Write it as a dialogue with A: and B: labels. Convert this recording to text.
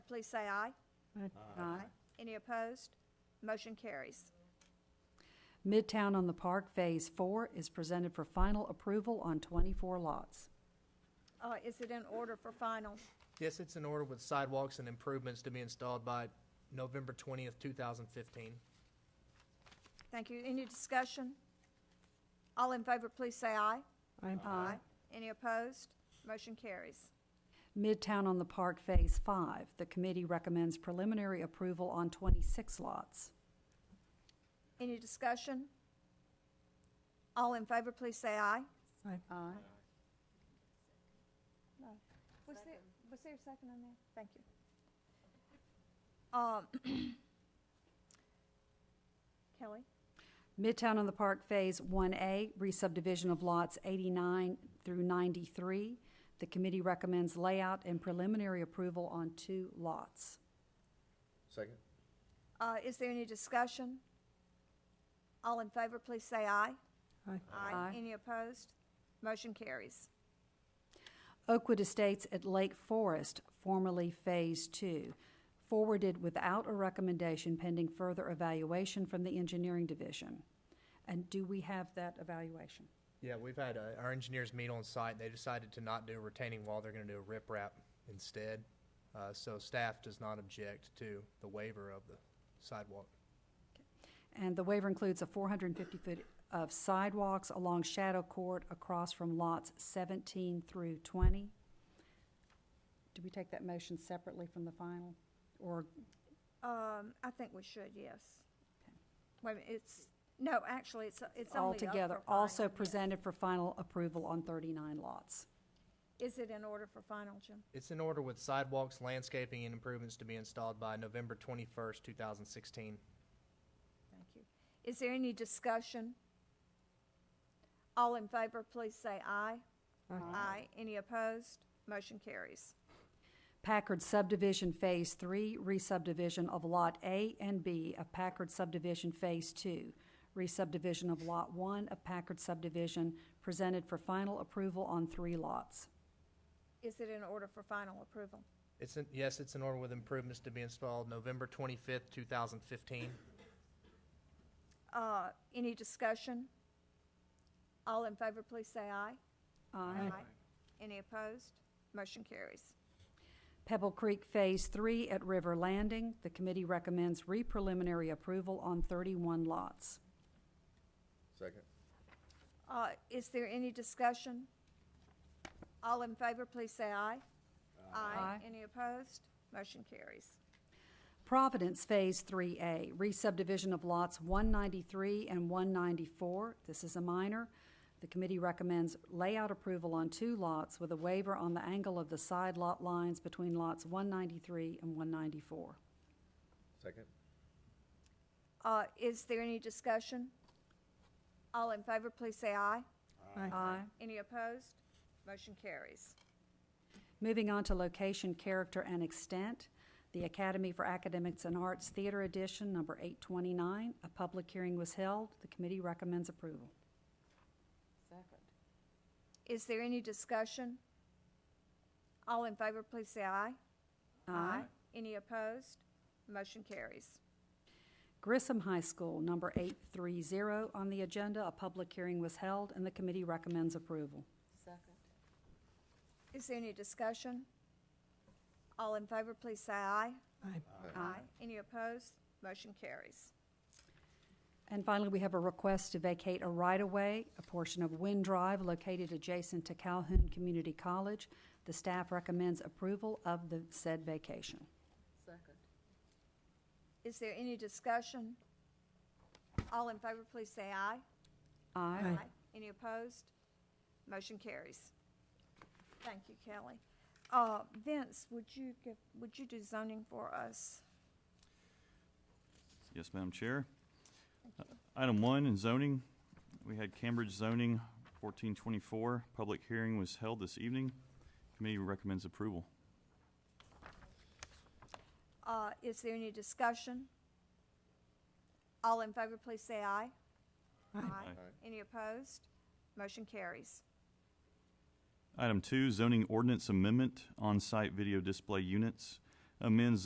A: please say aye.
B: Aye.
A: Any opposed? Motion carries.
B: Midtown on the Park Phase Four is presented for final approval on twenty-four lots.
A: Uh, Is it in order for final?
C: Yes, it's in order with sidewalks and improvements to be installed by November twentieth, two thousand fifteen.
A: Thank you. Any discussion? All in favor, please say aye.
B: Aye.
A: Any opposed? Motion carries.
B: Midtown on the Park Phase Five, the committee recommends preliminary approval on twenty-six lots.
A: Any discussion? All in favor, please say aye.
B: Aye.
A: Was there, was there a second on that? Thank you. Um, Kelly?
B: Midtown on the Park Phase 1A, re-subdivision of lots 89 through 93. The committee recommends layout and preliminary approval on two lots.
D: Second?
A: Uh, Is there any discussion? All in favor, please say aye.
B: Aye.
A: Any opposed? Motion carries.
B: Oakwood Estates at Lake Forest, formerly Phase 2, forwarded without a recommendation pending further evaluation from the Engineering Division. And do we have that evaluation?
C: Yeah, we've had, uh, our engineers meet on site, they decided to not do a retaining wall, they're gonna do a riprap instead. Uh, so staff does not object to the waiver of the sidewalk.
B: And the waiver includes a 450-foot of sidewalks along Shadow Court across from lots 17 through 20. Do we take that motion separately from the final? Or,
A: Um, I think we should, yes. Wait, a minute, it's, no, actually, it's, it's only up for
B: altogether,
A: final,
B: also
A: yes.
B: presented for final approval on 39 lots?
A: Is it in order for final, Jim?
C: It's in order with sidewalks, landscaping, and improvements to be installed by November twenty-first, two thousand sixteen.
A: Thank you. Is there any discussion? All in favor, please say aye. Aye. Any opposed? Motion carries.
B: Packard subdivision Phase 3, re-subdivision of Lot A and B of Packard subdivision Phase 2, re-subdivision of Lot 1 of Packard subdivision, presented for final approval on three lots.
A: Is it in order for final approval?
C: It's in, yes, it's in order with improvements to be installed November twenty-fifth, two thousand fifteen.
A: Uh, any discussion? All in favor, please say aye. Any opposed? Motion carries.
B: Pebble Creek Phase Three at River Landing, the committee recommends re-preliminary approval on thirty-one lots.
D: Second?
A: Uh, is there any discussion? All in favor, please say aye.
B: Aye.
A: Any opposed? Motion carries.
B: Providence Phase Three A, re-subdivision of lots one ninety-three and one ninety-four, this is a minor. The committee recommends layout approval on two lots with a waiver on the angle of the side lot lines between lots one ninety-three and one ninety-four.
D: Second?
A: Uh, is there any discussion? All in favor, please say aye.
B: Aye.
A: Any opposed? Motion carries.
B: Moving on to location, character, and extent, the Academy for Academics and Arts Theater Edition, number 829, a public hearing was held. The committee recommends approval.
A: Is there any discussion? All in favor, please say aye. Any opposed? Motion carries.
B: Grissom High School, number 830, on the agenda, a public hearing was held, and the committee recommends approval.
A: Is there any discussion? All in favor, please say aye. Aye. Any opposed? Motion carries.
B: And finally, we have a request to vacate a right-of-way, a portion of Wind Drive located adjacent to Calhoun Community College. The staff recommends approval of the said vacation.
A: Is there any discussion? All in favor, please say aye.
B: Aye.
A: Any opposed? Motion carries. Thank you, Kelly. Uh, Vince, would you give, would you do zoning for us?
E: Yes, Madam Chair. Uh, Item one in zoning, we had Cambridge zoning fourteen twenty-four. Public hearing was held this evening. Committee recommends approval.
A: Uh, is there any discussion? All in favor, please say aye. Aye. Any opposed? Motion carries.
E: Item two, zoning ordinance amendment on-site video display units. Amends